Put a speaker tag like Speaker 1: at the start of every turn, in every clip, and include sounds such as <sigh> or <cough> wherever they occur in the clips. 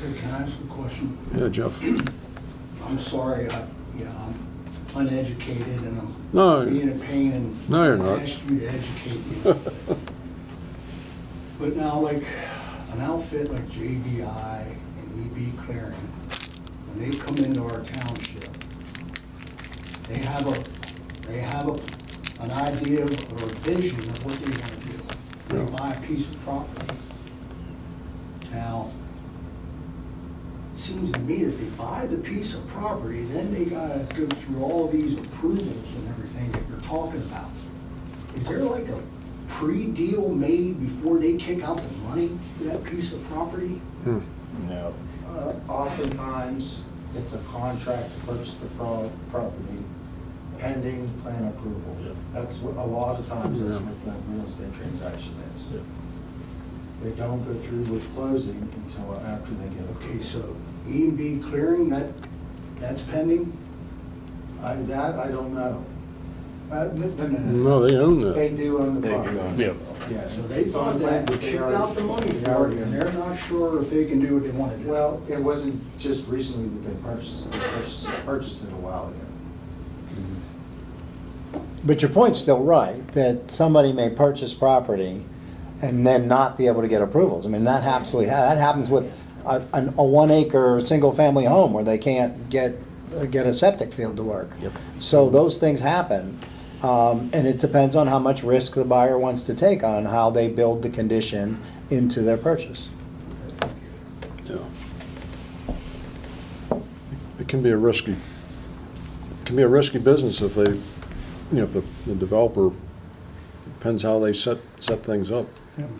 Speaker 1: Hey, Can I ask a question?
Speaker 2: Yeah, Jeff.
Speaker 1: I'm sorry, I, yeah, I'm uneducated and
Speaker 2: No.
Speaker 1: I'm being a pain and.
Speaker 2: No, you're not.
Speaker 1: I asked you to educate me.
Speaker 2: <laughs> Hmm.
Speaker 1: But now, like, an outfit like JBI and EB Clearing, when they come into our township, they have a, they have a, an idea or a vision of what they want to do. They
Speaker 2: Yeah.
Speaker 1: buy a piece of property. Now, it seems to me that they buy the piece of property, then they gotta go through all these approvals and everything that you're talking about. Is there like a pre-deal made before they kick out the money for that piece of property?
Speaker 2: Hmm.
Speaker 3: No.
Speaker 4: Uh, Oftentimes, it's a contract to purchase the pro- property pending plan approval.
Speaker 3: Yeah.
Speaker 4: That's what, a lot of times, that's
Speaker 2: Yeah.
Speaker 4: what the real estate transaction is. They don't go through with closing until after they get
Speaker 1: Okay,
Speaker 4: approval.
Speaker 1: so E and B clearing, that, that's pending?
Speaker 4: I, that, I don't know. Uh, no, no, no, no.
Speaker 2: No, they own
Speaker 4: They
Speaker 2: that.
Speaker 4: do own the
Speaker 3: They do own it.
Speaker 4: property.
Speaker 5: Yep.
Speaker 4: Yeah.
Speaker 1: So they
Speaker 4: it's on
Speaker 1: thought that,
Speaker 4: land,
Speaker 1: they
Speaker 4: but they
Speaker 1: kicked
Speaker 4: are-
Speaker 1: out the money
Speaker 4: they
Speaker 1: for
Speaker 4: are
Speaker 1: it,
Speaker 4: in
Speaker 1: and
Speaker 4: it.
Speaker 1: they're not sure if they can do what they want to do.
Speaker 4: Well, it wasn't just recently that they purchased, they purchased, purchased it a while ago.
Speaker 6: But your point's still right, that somebody may purchase property and then not be able to get approvals. I mean, that absolutely, ha- that happens with a, an- a one acre, single-family home where they can't get, get a septic field to work.
Speaker 5: Yep.
Speaker 6: So those things happen, um, and it depends on how much risk the buyer wants to take on how they build the condition into their purchase.
Speaker 2: Yeah. It can be a risky, it can be a risky business if they, you know, if the the developer, depends how they set, set things up.
Speaker 1: Thank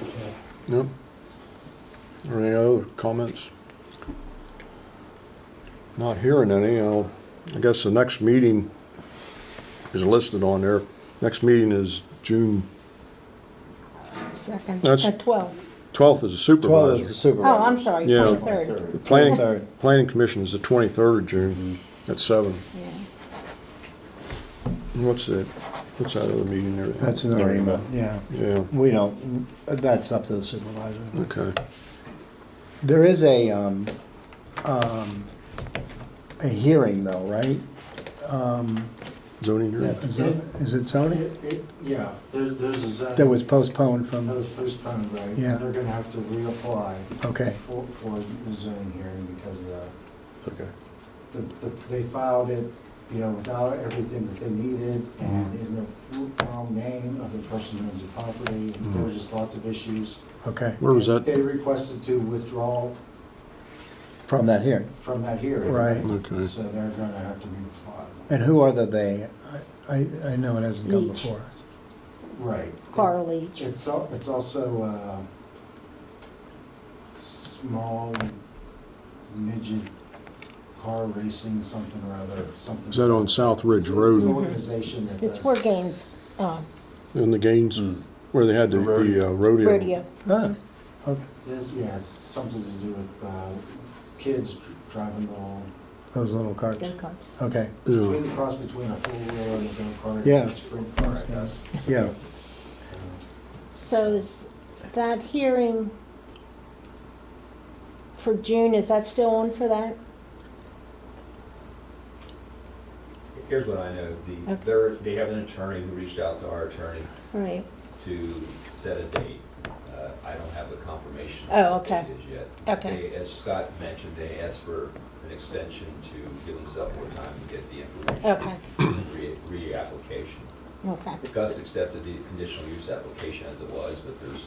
Speaker 1: you, Ted.
Speaker 2: Yep. Or any other comments? Not hearing any, I'll, I guess the next meeting is listed on there. Next meeting is June
Speaker 7: Second,
Speaker 2: That's-
Speaker 7: at 12.
Speaker 2: 12th is a supervisor.
Speaker 6: Twelve is the supervisor.
Speaker 7: Oh, I'm sorry,
Speaker 2: Yeah.
Speaker 7: 23rd.
Speaker 2: The planning,
Speaker 6: 23rd.
Speaker 2: planning commission is the 23rd of June at seven.
Speaker 7: Yeah.
Speaker 2: What's that, what's that other meeting there?
Speaker 6: That's in the REMA, yeah.
Speaker 2: Yeah,
Speaker 6: We don't, that's up to the supervisor.
Speaker 2: okay.
Speaker 6: There is a, um, um, a hearing though, right? Um,
Speaker 2: Zoning hearing?
Speaker 6: is it, is it Sony?
Speaker 4: It- it- Yeah, there, there's a zone.
Speaker 6: That was postponed
Speaker 4: That
Speaker 6: from,
Speaker 4: was postponed, right?
Speaker 6: Yeah.
Speaker 4: They're gonna have to reapply
Speaker 6: okay,
Speaker 4: for, for the zoning hearing because the,
Speaker 2: Okay.
Speaker 4: the, the, they filed it, you know, without everything that they needed
Speaker 6: Mm.
Speaker 4: and in the wrong name of the person who owns the property.
Speaker 6: Mm.
Speaker 4: and There were just lots of issues.
Speaker 6: okay,
Speaker 2: Where was
Speaker 4: They
Speaker 2: that?
Speaker 4: requested to withdraw
Speaker 6: from that hearing.
Speaker 4: from that hearing.
Speaker 6: Right.
Speaker 2: Okay.
Speaker 4: So they're gonna have to reapply.
Speaker 6: And who are the they? I, I- I know it hasn't come
Speaker 7: Leach.
Speaker 6: before.
Speaker 4: Right.
Speaker 7: Carl Leach.
Speaker 4: It's al- it's also uh small midget car racing, something or other, something.
Speaker 2: Is that on South Ridge
Speaker 4: It's- It's
Speaker 2: Road
Speaker 4: an organization that
Speaker 7: It's
Speaker 4: does-
Speaker 7: where Gaines uh,
Speaker 2: in the Gaines, where they had the the, uh, rodeo?
Speaker 7: rodeo.
Speaker 6: Oh, okay,
Speaker 4: Yes, Yeah, it's something to do with uh kids dr- driving little,
Speaker 6: those little carts,
Speaker 7: go-karts.
Speaker 6: okay,
Speaker 4: between the cross between a four-wheeler and a go-kart
Speaker 6: Yeah.
Speaker 4: and a sprint car, I guess.
Speaker 6: yeah.
Speaker 7: So is that hearing for June, is that still on for that?
Speaker 8: Here's what I know, the,
Speaker 7: Okay.
Speaker 8: they're, they have an attorney who reached out to our attorney
Speaker 7: Right.
Speaker 8: to set a date. Uh, I don't have the confirmation. of
Speaker 7: Oh,
Speaker 8: what the
Speaker 7: okay.
Speaker 8: date is yet.
Speaker 7: Okay.
Speaker 8: They- As Scott mentioned, they asked for an extension to give themselves more time to get the information.
Speaker 7: Okay,
Speaker 8: Re- Reapplication.
Speaker 7: okay.
Speaker 8: Gus accepted the conditional use application as it was, but there's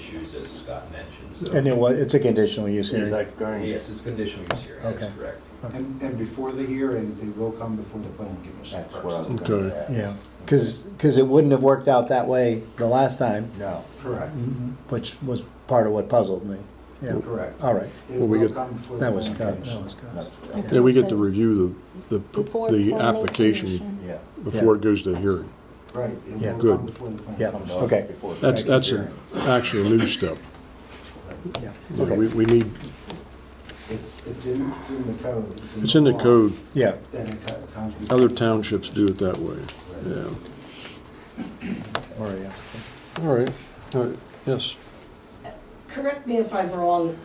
Speaker 8: issues as Scott mentioned, so.
Speaker 6: And it was, it's a conditional use hearing.
Speaker 8: Yes, it's conditional use here, that's
Speaker 6: Okay.
Speaker 8: correct.
Speaker 4: And, and before the hearing, they will come before the planning commission first.
Speaker 2: Okay.
Speaker 6: Yeah, because, because it wouldn't have worked out that way the last time,
Speaker 4: No. Correct,
Speaker 6: which was part of what puzzled me. Yeah,
Speaker 4: correct.
Speaker 6: all right,
Speaker 4: It
Speaker 2: Well, we
Speaker 4: will
Speaker 2: get-
Speaker 4: come before the
Speaker 6: that was
Speaker 4: planning
Speaker 6: good, that
Speaker 4: commission.
Speaker 6: was good.
Speaker 2: Yeah, we get
Speaker 7: So
Speaker 2: to review the,
Speaker 7: before
Speaker 2: the, the
Speaker 7: planning
Speaker 2: application
Speaker 7: commission.
Speaker 3: Yeah.
Speaker 2: before it goes to hearing.
Speaker 4: Right. it will
Speaker 6: Yeah.
Speaker 4: come
Speaker 2: Good.
Speaker 4: Before the plan.
Speaker 6: Yeah,
Speaker 4: comes.
Speaker 6: okay,
Speaker 2: That's, that's an actual new step.
Speaker 6: yeah,
Speaker 2: You know, We,
Speaker 6: okay,
Speaker 2: we need,
Speaker 4: It's, it's in, it's in the code.
Speaker 2: it's in the
Speaker 4: law
Speaker 2: code,
Speaker 6: yeah.
Speaker 4: that it co- comes before-
Speaker 2: other townships do it that way, yeah.
Speaker 6: Or, yeah.
Speaker 2: All right, all right, uh, yes.
Speaker 9: Correct me if I'm wrong,